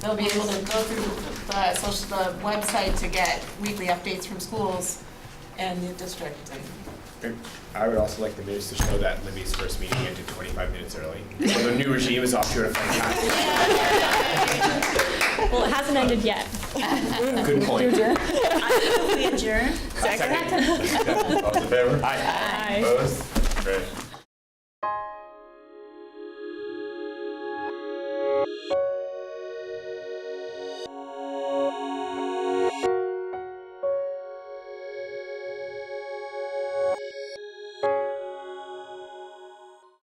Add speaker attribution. Speaker 1: They'll be able to go through the social, the website to get weekly updates from schools and the district.
Speaker 2: I would also like the news to show that Libby's first meeting ended 25 minutes early. So the new regime is off to a fun
Speaker 3: Well, it hasn't ended yet.
Speaker 2: time. Good point.
Speaker 4: We adjourn?
Speaker 2: Second.
Speaker 5: All in favor?
Speaker 2: Aye.
Speaker 3: Aye.
Speaker 5: Opposed? Great.